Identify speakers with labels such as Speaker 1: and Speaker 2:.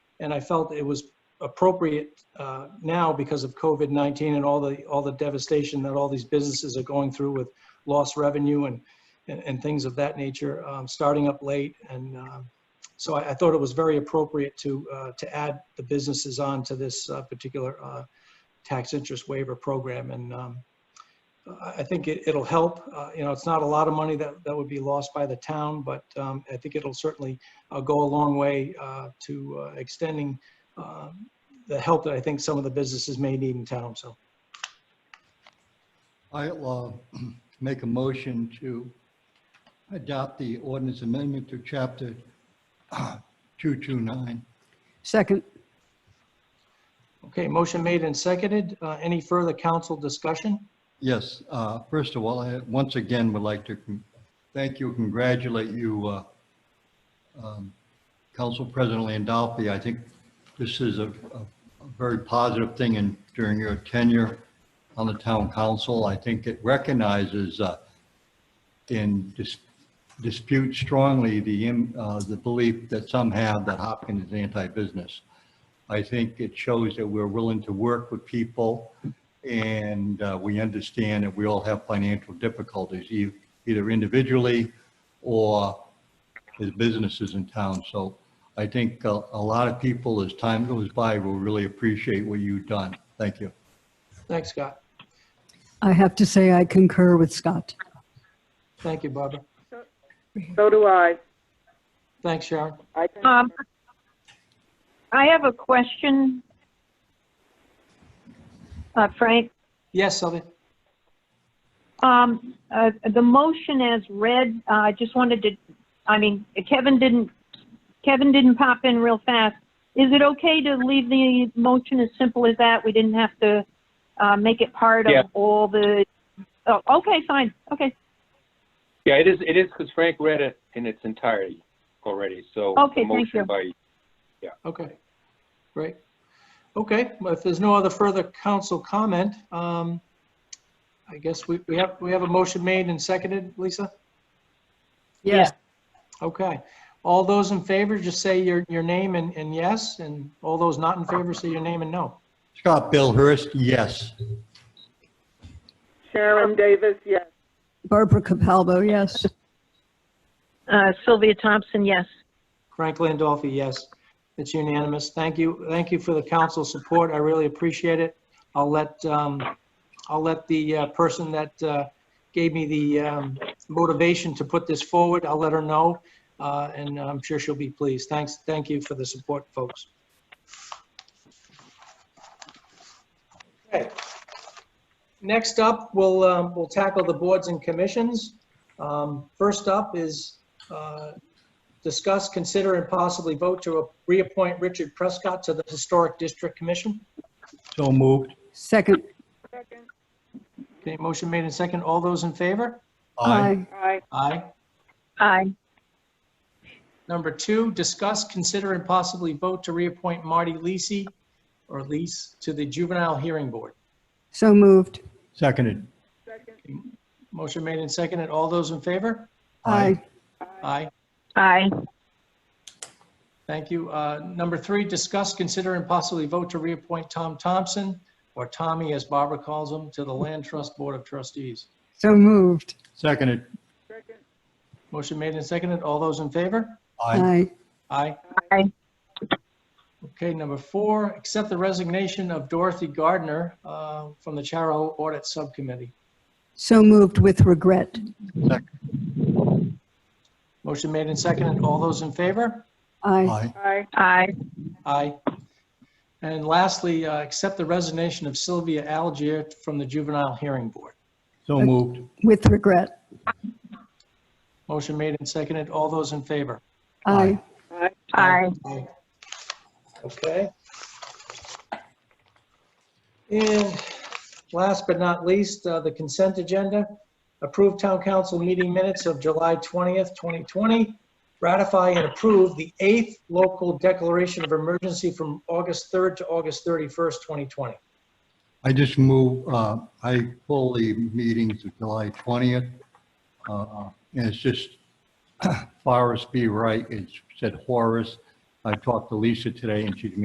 Speaker 1: And I felt it was appropriate uh, now because of COVID-19 and all the, all the devastation that all these businesses are going through with lost revenue and, and and things of that nature, um, starting up late. And um, so I I thought it was very appropriate to, uh, to add the businesses on to this uh, particular uh, tax interest waiver program. And um, I I think it- it'll help. Uh, You know, it's not a lot of money that, that would be lost by the town, but um, I think it'll certainly uh, go a long way uh, to uh, extending um, the help that I think some of the businesses may need in town, so.
Speaker 2: I'll uh, make a motion to adopt the ordinance amendment to chapter 229.
Speaker 3: Second,
Speaker 1: Okay, motion made and seconded. Uh, Any further council discussion?
Speaker 2: Yes, uh, first of all, I once again would like to con- thank you, congratulate you, uh, um, Council President Landolfi. I think this is a a- a very positive thing in, during your tenure on the town council. I think it recognizes uh, and dis- disputes strongly the, im- uh, the belief that some have that Hopkins is anti-business. I think it shows that we're willing to work with people and uh, we understand that we all have financial difficulties, e- either individually or as businesses in town. So I think a, a lot of people, as time goes by, will really appreciate what you've done. Thank you.
Speaker 1: Thanks, Scott.
Speaker 3: I have to say I concur with Scott.
Speaker 1: Thank you, Barbara.
Speaker 4: So do I.
Speaker 1: Thanks, Sharon.
Speaker 4: I
Speaker 5: Um, I have a question. Uh, Frank,
Speaker 1: Yes, Sylvia?
Speaker 5: um, uh, the motion as read, uh, I just wanted to, I mean, Kevin didn't, Kevin didn't pop in real fast. Is it okay to leave the motion as simple as that? We didn't have to, uh, make it part
Speaker 6: Yeah.
Speaker 5: of all the, oh, okay, fine, okay,
Speaker 6: Yeah, it is, it is, because Frank read it in its entirety already, so.
Speaker 5: Okay,
Speaker 6: the
Speaker 5: thank you.
Speaker 6: motion by-
Speaker 1: Okay, great. Okay, well, if there's no other further council comment, um, I guess we, we have, we have a motion made and seconded, Lisa?
Speaker 3: Yes.
Speaker 1: Okay. All those in favor, just say your, your name and, and yes, and all those not in favor, say your name and no.
Speaker 2: Scott Bill Hurst, yes.
Speaker 4: Sharon Davis, yes.
Speaker 3: Barbara Capalbo, yes.
Speaker 5: uh, Sylvia Thompson, yes.
Speaker 1: Frank Landolfi, yes. It's unanimous. Thank you. Thank you for the council support. I really appreciate it. I'll let, um, I'll let the uh, person that uh, gave me the um, motivation to put this forward, I'll let her know, uh, and I'm sure she'll be pleased. Thanks, thank you for the support, folks. Okay. Next up, we'll, um, we'll tackle the boards and commissions. Um, First up is uh, discuss, consider, and possibly vote to reappoint Richard Prescott to the Historic District Commission.
Speaker 2: So moved.
Speaker 3: Second,
Speaker 1: Okay, motion made and second. All those in favor?
Speaker 3: aye.
Speaker 4: Aye.
Speaker 1: Aye.
Speaker 5: Aye.
Speaker 1: Number two, discuss, consider, and possibly vote to reappoint Marty Lisi, or Lease, to the Juvenile Hearing Board.
Speaker 3: So moved.
Speaker 2: Seconded.
Speaker 1: Motion made and second. All those in favor?
Speaker 3: Aye.
Speaker 1: Aye.
Speaker 5: Aye.
Speaker 1: Thank you. Uh, Number three, discuss, consider, and possibly vote to reappoint Tom Thompson, or Tommy, as Barbara calls him, to the Land Trust Board of Trustees.
Speaker 3: So moved.
Speaker 2: Seconded.
Speaker 1: Motion made and seconded. All those in favor?
Speaker 2: Aye.
Speaker 3: Aye.
Speaker 1: Aye.
Speaker 5: Aye.
Speaker 1: Okay, number four, accept the resignation of Dorothy Gardner uh, from the Charo Audit Subcommittee.
Speaker 3: So moved with regret.
Speaker 2: Seconded.
Speaker 1: Motion made and seconded. All those in favor?
Speaker 3: Aye.
Speaker 2: Aye.
Speaker 4: Aye.
Speaker 5: Aye.
Speaker 1: Aye. And lastly, uh, accept the resignation of Sylvia Algier from the Juvenile Hearing Board.
Speaker 2: So moved.
Speaker 3: With regret.
Speaker 1: Motion made and seconded. All those in favor?
Speaker 3: Aye.
Speaker 4: Aye.
Speaker 5: Aye.
Speaker 1: Okay. And last but not least, uh, the consent agenda. Approve town council meeting minutes of July 20th, 2020. Ratify and approve the eighth local declaration of emergency from August 3rd to August 31st, 2020.
Speaker 2: I just move, uh, I pull the meeting to July uh, 20th. uh, And it's just Forrest B. Wright, it said Horace, I talked to Lisa today, and she's